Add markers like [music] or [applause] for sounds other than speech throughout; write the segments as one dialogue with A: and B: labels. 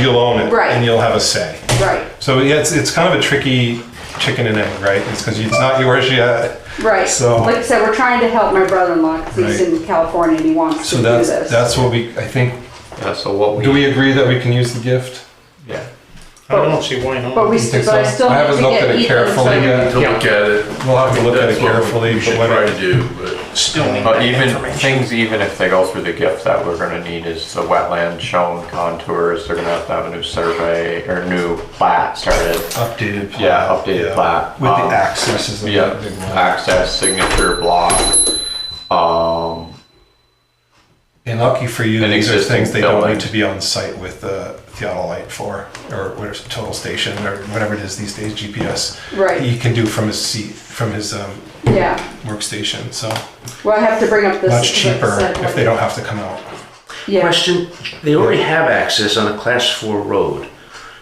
A: you'll own it
B: Right.
A: and you'll have a say.
B: Right,
A: So yeah, it's, it's kind of a tricky chicken and egg, right? It's because it's not yours yet.
B: right.
A: So-
B: Like I said, we're trying to help my brother-in-law, 'cause he's
A: Right.
B: in California and he wants
A: So
B: to do
A: that's,
B: this.
A: that's what we, I think,
C: Yeah, so what we,
A: do we agree that we can use the gift?
C: yeah.
D: I don't know, see why not?
B: But we,
A: You
B: st-
A: think
B: but I
A: so?
B: still
A: I
B: need
A: haven't
B: to
A: looked
B: get
A: at it
B: Ethan
A: carefully yet.
B: signed.
E: To look at it.
A: We'll have to look at it
E: That's what
A: carefully,
E: We
A: but
E: should
A: when
E: try
A: I-
E: to do, but
D: Still need
C: But
D: that
C: even
D: information.
C: things, even if they go through the gift that we're gonna need is the wetland shown contours, they're gonna have to have a new survey or new plat started.
A: updated. plat,
C: Yeah, updated plat.
A: With
C: Um,
A: the access is the
C: Yeah,
A: big one.
C: access, signature, block, um,
A: And lucky for you,
C: An
A: these are
C: existing
A: things they don't
C: building.
A: need to be on site with the theodolite for, or what is it, total station, or whatever it is these days, GPS.
B: Right.
A: He can do from his seat, from his um,
B: Yeah,
A: workstation, so
B: well, I have to bring up this.
A: much cheaper
B: this-
A: if they don't have to come out.
B: Yeah,
F: Question, they already have access on a class four road.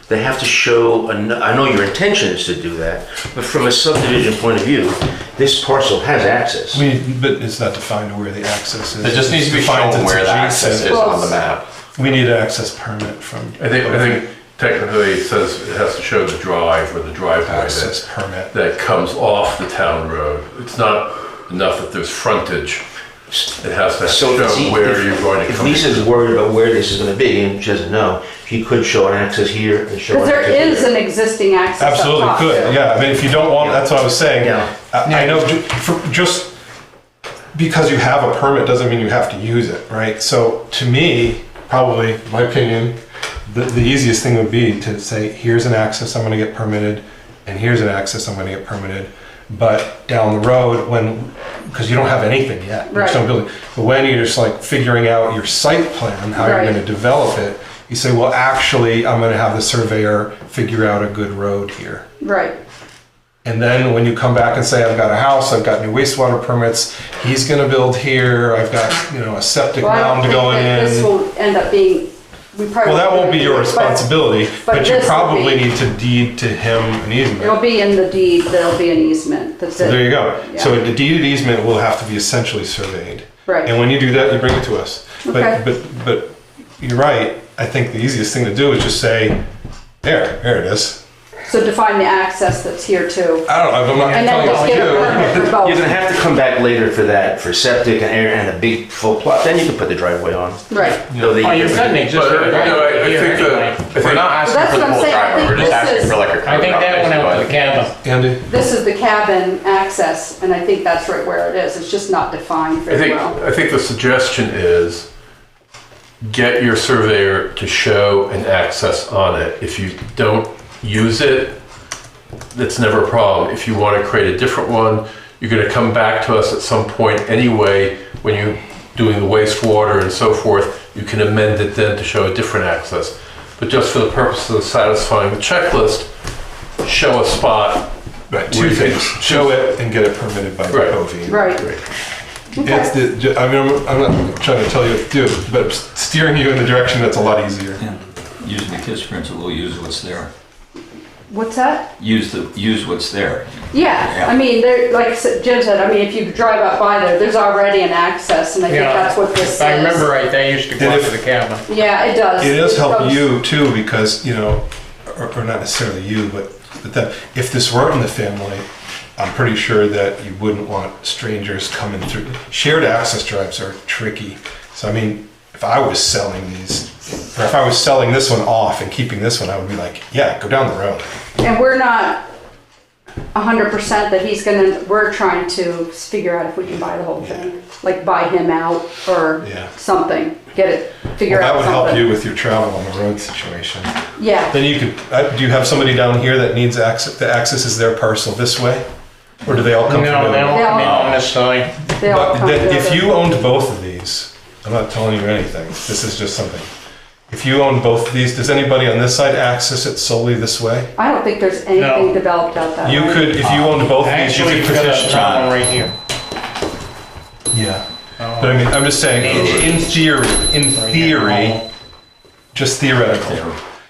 F: They have to show, an- I know your intention is to do that, but from a subdivision point of view, this parcel has access.
A: We, but it's not defined where the access is.
C: it just needs to be
A: It's defined
C: shown
A: it's
C: where the access
A: adjacent.
C: is on the map.
A: We need an access permit from.
E: I think, I think technically it says it has to show the drive or the driveway
A: Access
E: that,
A: permit.
E: that comes off the town road. It's not enough that there's frontage. It has to
F: So
E: show
F: if Z-
E: where
F: if-
E: you're going to
F: If
E: come.
F: Lisa's worried about where this is gonna be, and she doesn't know, she could show an access here and show
B: because
F: an
B: there is
F: access here.
B: an existing access up
A: Absolutely
B: top,
A: could,
B: too.
A: yeah, I mean, if you don't want, that's what I was saying.
F: Yeah.
A: I I know, ju- for- just because you have a permit doesn't mean you have to use it, right? So to me, probably, my opinion, the, the easiest thing would be to say, here's an access I'm gonna get permitted, and here's an access I'm gonna get permitted. But down the road, when, because you don't have anything yet, there's no
B: Right.
A: building. But when you're just like figuring out your site plan, how you're
B: Right.
A: gonna develop it, you say, well, actually, I'm gonna have the surveyor figure out a good road here.
B: Right,
A: And then when you come back and say, I've got a house, I've got new wastewater permits, he's gonna build here, I've got, you know, a septic
B: well, I don't
A: mound
B: think
A: going
B: that this
A: in.
B: will end up being, we probably.
A: Well, that won't be your
B: won't do it, but
A: responsibility,
B: but
A: but you
B: this will
A: probably
B: be-
A: need to deed to him an
B: It'll
A: easement.
B: be in the deed, there'll be an easement, that's
A: So There you
B: it.
A: go. So the deed easement will have to be essentially surveyed.
B: Right.
A: And when you do that, you bring it to us.
B: Okay.
A: But, but, but you're right, I think the easiest thing to do is just say, there, there it is.
B: So define the access that's here too.
A: I don't know, I'm not
B: And then just
A: telling
B: get a
A: you.
B: permit for
F: You're gonna
B: both.
F: have to come back later for that, for septic and air and a big full plot, then you can put the driveway on.
B: Right.
F: No, they-
D: Oh, you've got an
E: But,
D: existing
E: you know, I-
D: right
E: I
D: here
E: think
D: anyway.
E: that, I
C: We're
E: think-
C: not asking
B: That's
C: for the
B: what I'm
C: whole
B: saying. I
C: driveway,
B: think
C: we're just
B: this
C: asking
B: is-
C: for like a curb.
D: I think
C: cut,
D: that went out
C: basically.
D: with the cabin.
A: Andy?
B: This is the cabin access, and I think that's right where it is. It's just not defined
E: I
B: very
E: think,
B: well.
E: I think the suggestion is get your surveyor to show an access on it. If you don't use it, that's never a problem. If you want to create a different one, you're going to come back to us at some point anyway, when you're doing the wastewater and so forth, you can amend it then to show a different access. But just for the purpose of satisfying the checklist, show a spot.
A: Right,
E: where
A: two
E: you can-
A: things, show it and get it permitted by the
E: Right.
A: Covey.
B: Right.
A: It's the, I mean, I'm- I'm not trying to tell you what to do, but I'm steering you in the direction that's a lot easier.
G: Yeah, using the KISS principle, use what's there.
B: What's that?
G: Use the, use what's there.
B: Yeah,
G: Yeah.
B: I mean, there, like s- Jim said, I mean, if you drive up by there, there's already an access, and I think
D: Yeah.
B: that's what this
D: If
B: is.
D: I remember right, they used to go
A: And
D: out
A: if-
D: to the cabin.
B: Yeah, it does. [laughs]
A: It does help
B: goes-
A: you too, because, you know, or, or not necessarily you, but, but that, if this weren't in the family, I'm pretty sure that you wouldn't want strangers coming through. Shared access drives are tricky. So I mean, if I was selling these, or if I was selling this one off and keeping this one, I would be like, yeah, go down the road.
B: And we're not a hundred percent that he's gonna, we're trying to figure out if we can buy the whole thing. Like buy him out or
A: Yeah.
B: something, get it,
A: Well,
B: figure
A: that
B: out
A: would help you
B: something.
A: with your travel on the road situation.
B: Yeah,
A: Then you could, uh, do you have somebody down here that needs access, the access is their parcel this way? Or do they all
D: No,
A: come
D: they
A: from the?
D: don't come in
B: Yeah.
D: on this side.
B: they all
A: But
B: come
A: then if
B: together.
A: you owned both of these, I'm not telling you anything, this is just something. If you own both of these, does anybody on this side access it solely this way?
B: I don't think there's anything developed out that
A: You
B: way.
A: could, if you owned both of these, you
D: Actually,
A: could
D: you've got
A: petition.
D: another one right here.
A: Yeah. But I mean, I'm just saying, i- in theory, in theory, just theoretical,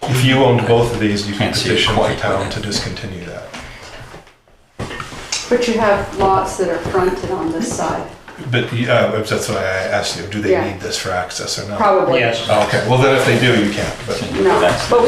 A: if you owned both of these, you could
G: Can't see it
A: petition the
G: quite, but-
A: town to discontinue that.
B: But you have lots that are fronted on this side.
A: But uh, that's why I asked you, do they
B: Yeah.
A: need this for access or not? Oh,
B: probably.
D: Yes.
A: Okay, well then if they do, you can't, but.
B: No, but we